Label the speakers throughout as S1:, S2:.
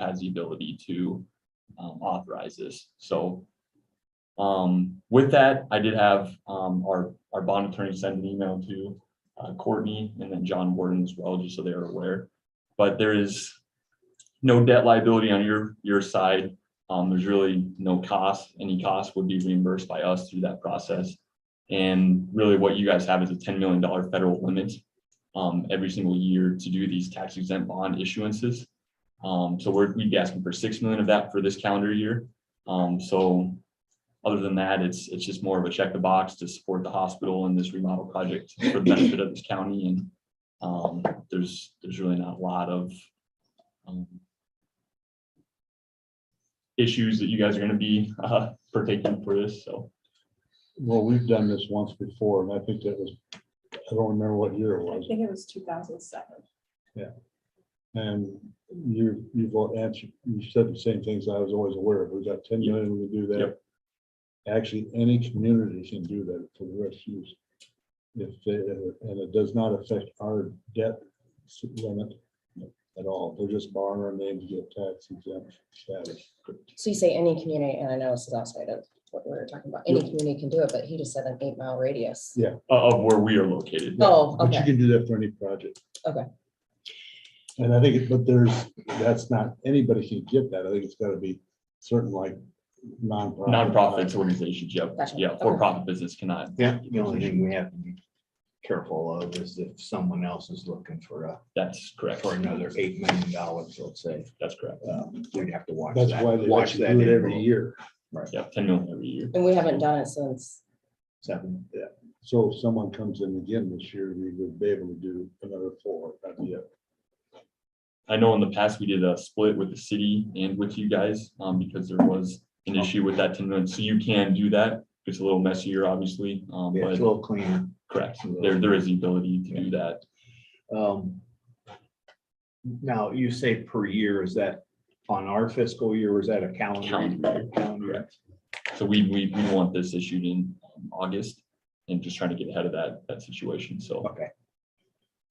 S1: has the ability to um, authorize this. So um, with that, I did have um, our, our bond attorney send an email to uh, Courtney and then John Warden as well, just so they're aware. But there is no debt liability on your, your side. Um, There's really no cost. Any cost would be reimbursed by us through that process. And really what you guys have is a $10 million federal limit um, every single year to do these tax exempt bond issuances. Um, so we're, we'd be asking for six million of that for this calendar year. Um, so other than that, it's, it's just more of a check the box to support the hospital and this remodel project for the benefit of this county and um, there's, there's really not a lot of um, issues that you guys are gonna be uh, partaking for this, so.
S2: Well, we've done this once before, and I think that was, I don't remember what year it
S3: I
S2: was,
S3: think it was two thousand seven.
S2: and you, you've all answered, you said the same things I was always aware of, we got ten
S1: Yep.
S2: million, we do that.
S1: Yep.
S2: Actually, any community can do that for the refuse. If they, and it does not affect our debt limit at all, they're just borrowing our name to get tax exempt status.
S4: So you say any community, and I know this is outside of what we were talking about, any community can do it, but he just said an eight mile radius.
S1: uh, Of of where we are located.
S4: Oh,
S2: But you
S4: okay,
S2: can do that for any project.
S4: Okay.
S2: And I think, it- but there's, that's not, anybody can get that. I think it's gotta be certain like nonprofit.
S1: Nonprofits, organizations, yep,
S4: Gotcha.
S1: yeah, for-profit business cannot,
S5: Yeah, the only thing we have to be careful of is if someone else is looking for a,
S1: that's correct,
S5: for another eight million dollars, let's say,
S1: that's correct.
S5: um, we'd have to watch
S2: That's
S5: that.
S2: why they
S5: watch
S2: watch
S5: that
S2: do it every
S5: envelope.
S2: year.
S1: Yeah, ten million every year.
S4: and we haven't done it since,
S5: Seven, yeah,
S2: So if someone comes in again this year, we would be able to do another four. that'd be it.
S1: I know in the past we did a split with the city and with you guys, um, because there was an issue with that ten million, so you can do that. It's a little messier, obviously, um,
S5: Yeah, it's a
S1: but
S5: little cleaner.
S1: correct, there, there is the ability to do that.
S5: Um, Now, you say per year, is that on our fiscal year, or is that a calendar?
S1: Calendar.
S5: Calendar.
S1: So we, we, we want this issued in um, August and just trying to get ahead of that, that situation, so.
S5: Okay,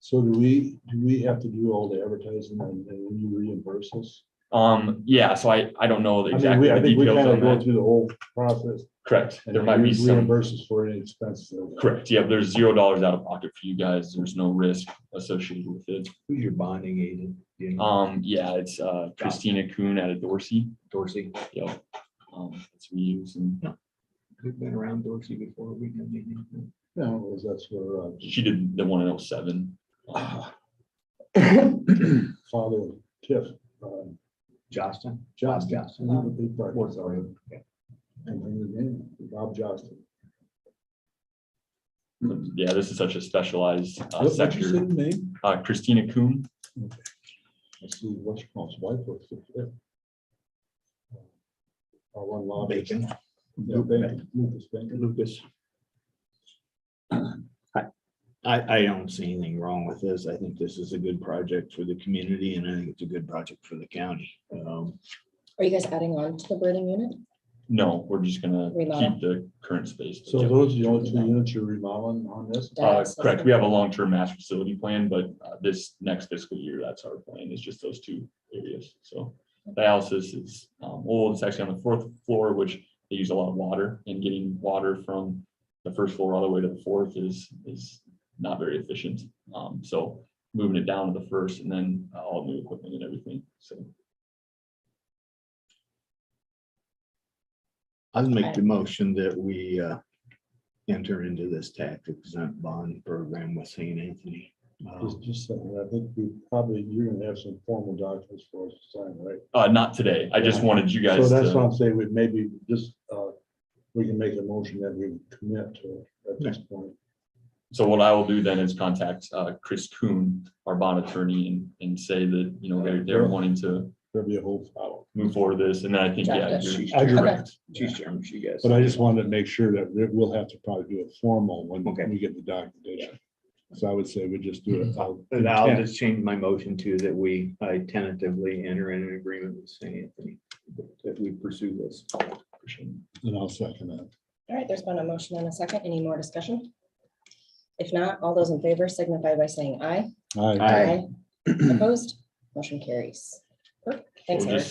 S2: So do we, do we have to do all the advertising and and when you reimburse us?
S1: Um, yeah, so I, I don't know
S2: I mean,
S1: exactly
S2: we, I
S1: the
S2: think we
S1: details
S2: kind of
S1: on
S2: go
S1: that,
S2: through the whole process.
S1: correct,
S2: and
S1: there might be
S2: you
S1: some.
S2: Reimburse us for any expenses. that we have.
S1: Correct, yeah, there's zero dollars out of pocket for you guys, there's no risk associated with it.
S5: who's your bonding agent? Do You know,
S1: Um, yeah, it's uh Christina Kuhn out of Dorsey,
S5: Dorsey,
S1: yep. Um, that's who we use and
S5: we've been around Dorsey before, we can meet him.
S2: No, that's where, uh,
S1: she did the one in oh seven.
S2: Father Tiff, um,
S5: Johnston?
S2: Josh Johnson,
S5: Johnston.
S2: he's a big part
S5: Works
S2: of
S5: already.
S2: it. And then his name, Bob Johnston.
S1: Yeah, this is such a specialized uh,
S2: What- What's your
S1: sector.
S2: city name?
S1: Uh, Christina Kuhn,
S2: I see what's called his wife works with him. Our one law.
S5: Bacon.
S2: No, Bacon, Lucas Bacon.
S5: Lucas. I, I don't see anything wrong with this. I think this is a good project for the community and I think it's a good project for the county. Um,
S4: are you guys adding on to the breathing unit?
S1: no, we're just gonna
S4: Remodel.
S1: keep the current space.
S2: So those are the only two units you're remodeling on this?
S1: Uh,
S4: That's-
S1: correct, we have a long-term master facility plan, but uh, this next fiscal year, that's our plan, is just those two areas, so. Dialysis is um, old, it's actually on the fourth floor, which they use a lot of water, and getting water from the first floor all the way to the fourth is, is not very efficient. Um, so moving it down to the first and then uh, all new equipment and everything, so.
S5: I'd make the motion that we uh, enter into this tax exempt bond program with St. Anthony.
S1: Um,
S5: Uh,
S2: Just, just, saying, I think we probably, you're gonna have some formal documents for us to sign, right?
S1: Uh, not today, I just wanted you
S2: So
S1: guys uh,
S2: that's why
S1: to,
S2: I'm saying we maybe just, uh, we can make a motion that we commit to it at this point.
S1: so what I will do then is contact uh, Chris Kuhn, our bond attorney, and, and say that, you know, they're, they're wanting to
S2: There'll be a whole file.
S1: move forward with this, and then I think, yeah,
S4: Got
S1: you're-
S5: She's
S2: I
S5: chair-
S4: Okay.
S5: she's chairman, she gets.
S2: But I just wanted to make sure that we- we'll have to probably do a formal when
S5: Okay.
S2: we get the documentation. So I would say we just do it. out-
S5: And I'll just change my motion to that we uh, tentatively enter in an agreement with St. Anthony, that we pursue this.
S2: And I'll second that.
S4: All right, there's been a motion and a second, any more discussion? If not, all those in favor signify by saying aye.
S2: All right.
S5: Aye.
S4: Opposed, motion carries. Thanks,
S1: We'll
S4: Eric.
S1: just